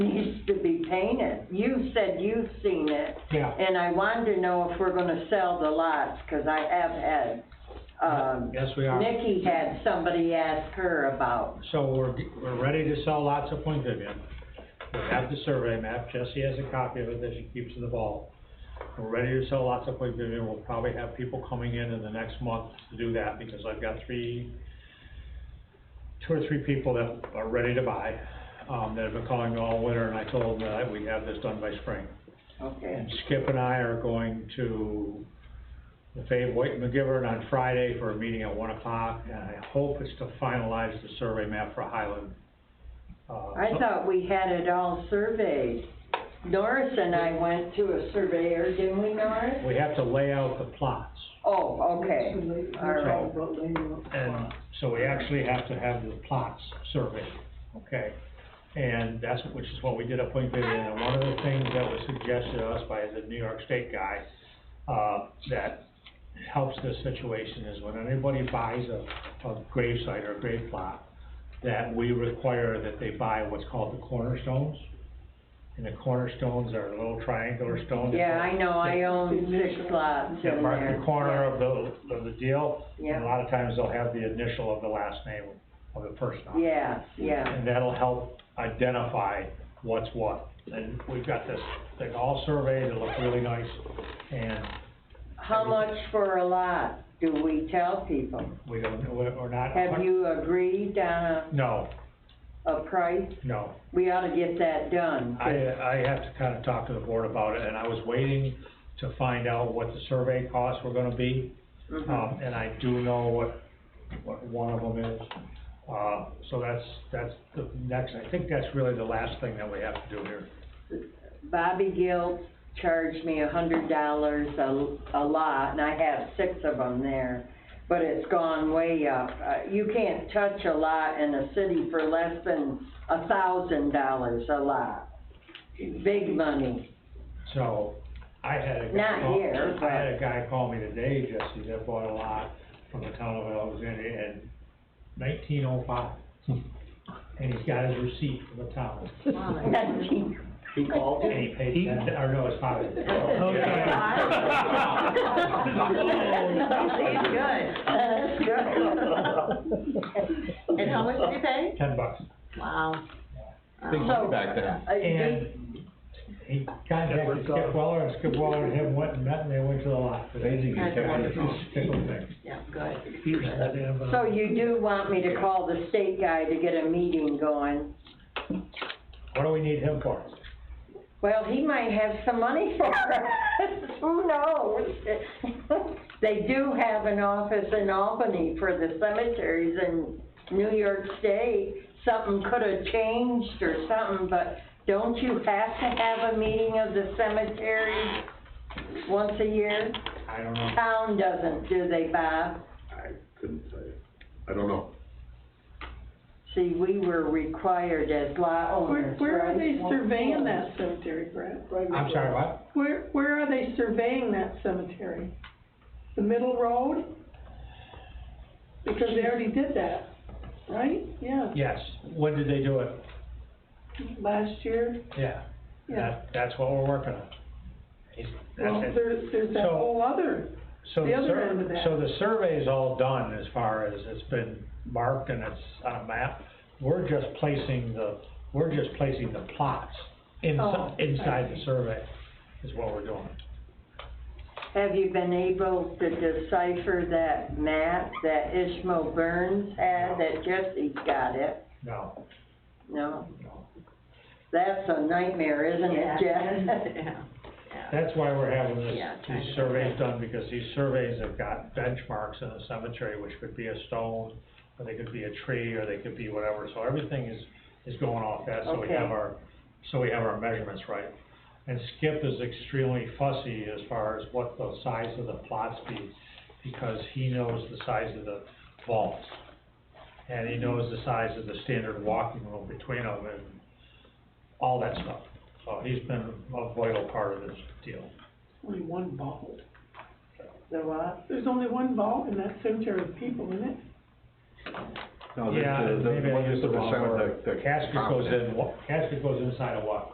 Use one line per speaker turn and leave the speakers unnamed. you said you've seen it,
Yeah.
and I wanted to know if we're gonna sell the lots, 'cause I have had, um,
Yes, we are.
Nikki had somebody ask her about,
So we're, we're ready to sell lots of Point Vivian. We have the survey map, Jesse has a copy of it that she keeps in the vault. We're ready to sell lots of Point Vivian, we'll probably have people coming in in the next month to do that, because I've got three, two or three people that are ready to buy, um, that have been calling me all winter, and I told them that we have this done by spring.
okay,
And Skip and I are going to the Fave White McGivern on Friday for a meeting at one o'clock, and I hope it's to finalize the survey map for Highland. Uh,
I
so-
thought we had it all surveyed. Norris and I went to a surveyor, didn't we, Norris?
We have to lay out the plots,
Oh, okay, all right,
and so we actually have to have the plots surveyed, okay? And that's, which is what we did at Point Vivian, and one of the things that was suggested to us by the New York State guy, uh, that helps this situation is when anybody buys a, a grave site or a grave plot, that we require that they buy what's called the cornerstones. And the cornerstones are little triangular stones.
yeah, I know, I own six lots
Yeah,
in
mark
there.
the corner of the, of the deal. And
Yeah.
a lot of times they'll have the initial of the last name of the person on it.
Yeah, yeah,
And that'll help identify what's what. And we've got this thing all surveyed, it looks really nice. And
how much for a lot do we tell people?
we don't, know we're we're not.
Have you agreed on
No,
a, a price?
no.
We ought to get that done.
I, I have to kind of talk to the board about it and I was waiting to find out what the survey costs were gonna be.
Mhm.
Um, and I do know what, what one of them is. Uh, so that's, that's the next, I think that's really the last thing that we have to do here.
Bobby Gill charged me a hundred dollars a, a lot, and I have six of them there, but it's gone way up. Uh, you can't touch a lot in a city for less than a thousand dollars a lot. Big money.
So, I had a guy.
Not
call-
here, but-
I had a guy call me today, Jesse, that bought a lot from the town of Alexandria in nineteen oh five. And he's got his receipt from the town,
He called
and he paid ten, or no, his father.
Oh,
That's good.
And how much did you pay?
Ten bucks.
Wow.
Big
Wow.
money back then.
Uh,
And
big-
he contacted Skip Weller, and Skip Weller and him went and met, and they went to the lot.
Amazing.
That's wonderful.
Pickle thing.
Yeah, good.
uh,
So you do want me to call the state guy to get a meeting going?
What do we need him for?
Well, he might have some money for us, who knows? They do have an office in Albany for the cemeteries in New York State. Something could have changed or something, but don't you have to have a meeting of the cemeteries once a year?
I don't know.
Town doesn't, do they, Bob?
I couldn't tell you. I don't know.
See, we were required as lot
Where,
owners,
where are
right?
they surveying that cemetery, Brad?
I'm sorry, what?
Where, where are they surveying that cemetery? The middle road? Because they already did that, right? Yeah,
Yes, when did they do it?
last year,
Yeah.
yeah.
That, that's what we're working on. Is-
Well,
that's it.
there's, there's that
So-
whole other,
So
the other
sur-
end of that.
So the survey's all done as far as it's been marked and it's on a map. We're just placing the, we're just placing the plots
Oh,
inside,
I
inside the
see.
survey is what we're doing.
Have you been able to decipher that map that Ishmael Burns had, that Jesse's got it?
No,
No,
no.
that's a nightmare, isn't it, Jeff?
Yeah.
That's why we're having this,
Yeah, trying
these
to-
surveys done, because these surveys have got benchmarks in the cemetery, which could be a stone, or they could be a tree, or they could be whatever, so everything is, is going off that, so we
Okay.
have our, so we have our measurements right. And Skip is extremely fussy as far as what the size of the plots be, because he knows the size of the vaults. And he knows the size of the standard walking room between them and all that stuff. So he's been a vital part of this deal.
only one vault.
The what?
There's only one vault in that cemetery with people in it.
No, the-
Yeah,
the- the
maybe I
one
used
that's
the wrong
the-
word.
the- the
Casket goes
confidence.
in, wa- casket goes inside a what?